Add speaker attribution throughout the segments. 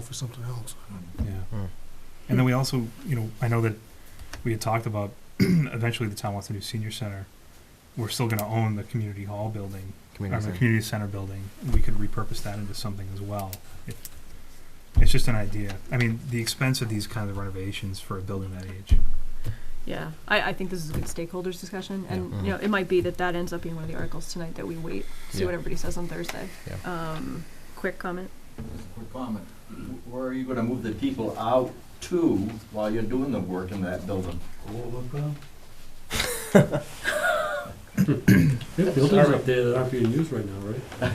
Speaker 1: for something else.
Speaker 2: Yeah.
Speaker 3: Hmm.
Speaker 2: And then we also, you know, I know that we had talked about eventually the town wants to do senior center. We're still gonna own the community hall building, or
Speaker 3: Community
Speaker 2: the
Speaker 3: center.
Speaker 2: community center building. We could repurpose that into something as well. If- It's just an idea. I mean, the expense of these kind of renovations for a building that age.
Speaker 4: Yeah, I, I think this is a good stakeholders discussion,
Speaker 2: Yeah.
Speaker 4: and, you know, it might be that that ends up being one of the articles tonight that we wait, see
Speaker 3: Yeah.
Speaker 4: what everybody says on Thursday. Um, quick comment?
Speaker 5: Quick comment. Where are you gonna move the people out to while you're doing the work in that building?
Speaker 1: There are buildings up there that aren't being used right now, right?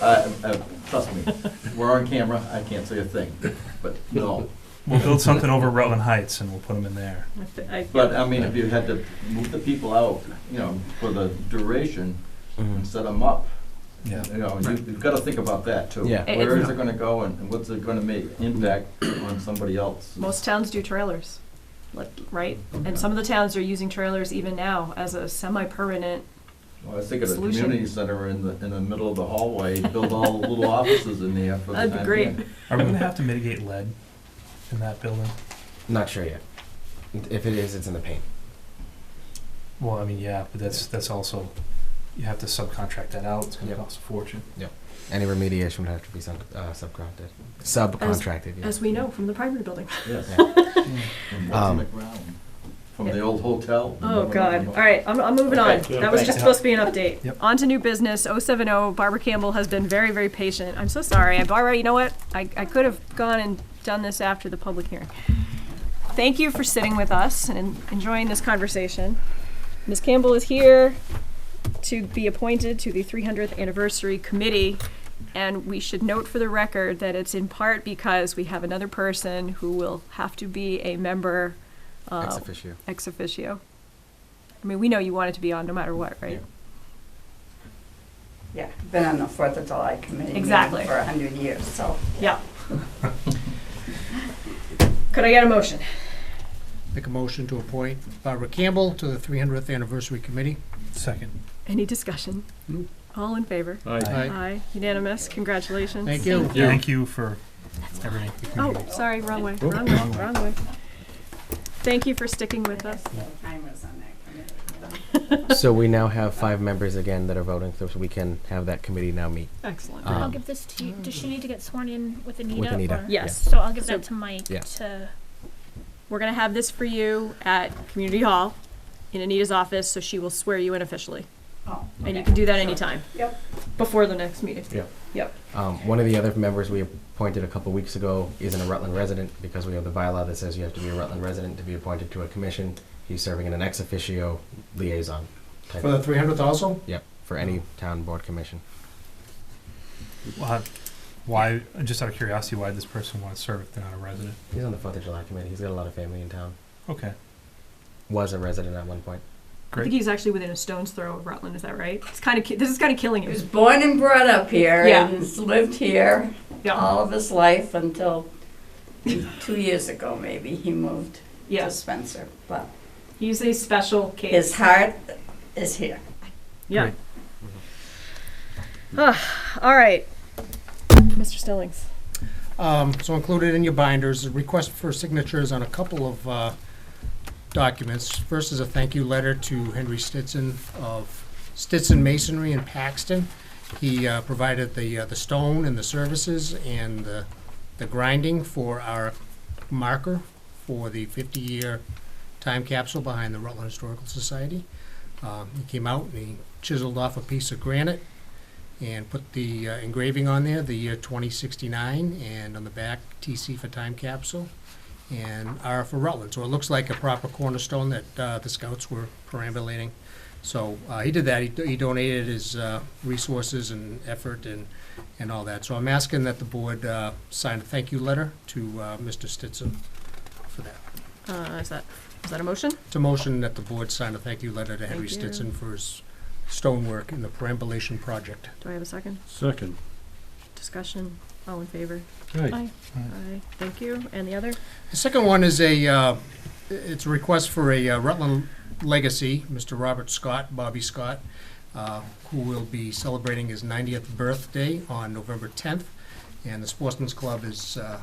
Speaker 5: Uh, uh, trust me, we're on camera, I can't say a thing, but no.
Speaker 2: We'll build something over Rutland Heights and we'll put them in there.
Speaker 4: I thi- I-
Speaker 5: But I mean, if you had to move the people out, you know, for the duration
Speaker 3: Mm-hmm.
Speaker 5: and set them up,
Speaker 3: Yeah.
Speaker 5: you know, you- you've gotta think about that too.
Speaker 3: Yeah.
Speaker 4: It-
Speaker 5: Where
Speaker 4: it's-
Speaker 5: is it gonna go and and what's it gonna make impact on somebody else?
Speaker 4: Most towns do trailers, like, right? And some of the towns are using trailers even now as a semi-permanent,
Speaker 5: Well, I was thinking a
Speaker 4: Solution.
Speaker 5: community center in the, in the middle of the hallway, build all the little offices in there for the
Speaker 4: That'd be
Speaker 5: time
Speaker 4: great.
Speaker 5: being.
Speaker 2: Are we gonna have to mitigate lead in that building?
Speaker 3: Not sure yet. If it is, it's in the paint.
Speaker 2: Well, I mean, yeah, but that's, that's also, you have to subcontract that out. It's gonna
Speaker 3: Yep.
Speaker 2: cost a fortune.
Speaker 3: Any remediation would have to be sub- uh, subcontracted. Subcontracted. yeah.
Speaker 4: as we know from the primary building.
Speaker 5: Yes. From
Speaker 3: Um,
Speaker 5: Walter McBrown, from the old hotel.
Speaker 4: Oh, God. All right, I'm, I'm moving on. That was just supposed to be an update.
Speaker 2: Yep.
Speaker 4: On to new business, 070. Barbara Campbell has been very, very patient. I'm so sorry. I- Barbara, you know what? I, I could have gone and done this after the public hearing. Thank you for sitting with us and en- enjoying this conversation. Ms. Campbell is here to be appointed to the 300th Anniversary Committee. And we should note for the record that it's in part because we have another person who will have to be a member
Speaker 3: Ex
Speaker 4: uh,
Speaker 3: officio.
Speaker 4: ex officio. I mean, we know you want it to be on no matter what, right?
Speaker 6: Yeah, been on the Fourth of July committee meeting
Speaker 4: Exactly.
Speaker 6: for a hundred years, so.
Speaker 4: Yeah. Could I get a motion?
Speaker 1: Make a motion to appoint Barbara Campbell to the 300th Anniversary Committee.
Speaker 2: Second.
Speaker 4: Any discussion?
Speaker 1: Nope.
Speaker 4: All in favor?
Speaker 1: Aye.
Speaker 4: Aye, unanimous, congratulations.
Speaker 1: Thank you.
Speaker 2: Thank you for everything.
Speaker 4: Oh, sorry, wrong way, wrong way, wrong way. Thank you for sticking with us.
Speaker 6: I was on that committee.
Speaker 3: so we now have five members again that are voting, so we can have that committee now meet
Speaker 4: Excellent.
Speaker 3: Um,
Speaker 1: Uh-huh.
Speaker 7: I'll give this to you. Does she need to get sworn in with Anita?
Speaker 3: with Anita.
Speaker 7: or-
Speaker 3: Yeah.
Speaker 4: Yes.
Speaker 7: So I'll give
Speaker 4: So-
Speaker 7: that to Mike
Speaker 3: Yeah.
Speaker 7: to.
Speaker 4: We're gonna have this for you at Community Hall in Anita's office, so she will swear you in officially.
Speaker 6: Oh,
Speaker 4: And you
Speaker 6: okay.
Speaker 4: can do that anytime.
Speaker 6: Yep.
Speaker 4: Before the next meeting.
Speaker 3: Yeah.
Speaker 4: Yep.
Speaker 3: Um, one of the other members we appointed a couple weeks ago isn't a Rutland resident because we have the bylaw that says you have to be a Rutland resident to be appointed to a commission. He's serving in an ex officio liaison type.
Speaker 1: For the 300th also?
Speaker 3: yep, for any town board commission.
Speaker 2: Uh, Why, just out of curiosity, why this person want to serve if they're not a resident?
Speaker 3: He's on the Fourth of July committee. He's got a lot of family in town.
Speaker 2: Okay.
Speaker 3: Was a resident at one point.
Speaker 4: I think he's actually within a stone's throw of Rutland. Is that right? It's kind of this is kind of killing
Speaker 6: He was
Speaker 4: him.
Speaker 6: born and brought up here
Speaker 4: Yeah.
Speaker 6: and has lived here
Speaker 4: Yeah.
Speaker 6: all of his life until two years ago, maybe, he moved to
Speaker 4: Yes.
Speaker 6: Spencer. But
Speaker 4: He's a special case.
Speaker 6: his heart is here.
Speaker 4: Yeah. Ah, all right, Mr. Stillings.
Speaker 1: Um, So included in your binders, a request for signatures on a couple of uh, documents. First is a thank you letter to Henry Stetson of Stetson Masonry in Paxton. He uh, provided the, uh, the stone and the services and the the grinding for our marker for the 50-year time capsule behind the Rutland Historical Society. Um, He came out and he chiseled off a piece of granite and put the uh, engraving on there, the year 2069, and on the back, TC for time capsule, and R for Rutland. So it looks like a proper cornerstone that uh, the scouts were perambulating. So uh, he did that. He, he donated his uh, resources and effort and, and all that. So I'm asking that the board uh, sign a thank you letter to uh, Mr. Stetson for that.
Speaker 4: Uh, is that is that a motion?
Speaker 1: It's a motion that the board sign a thank you letter to Henry
Speaker 4: Thank you.
Speaker 1: Stetson for his stonework in the perambulation project.
Speaker 4: Do I have a second?
Speaker 8: Second.
Speaker 4: Discussion. All in favor?
Speaker 8: Aye.
Speaker 4: Aye. Thank you. And the other?
Speaker 1: The second one is a, uh, it's a request for a uh, Rutland legacy, Mr. Robert Scott, Bobby Scott, uh, who will be celebrating his 90th birthday on November 10th. And the Sportsman's Club is, uh,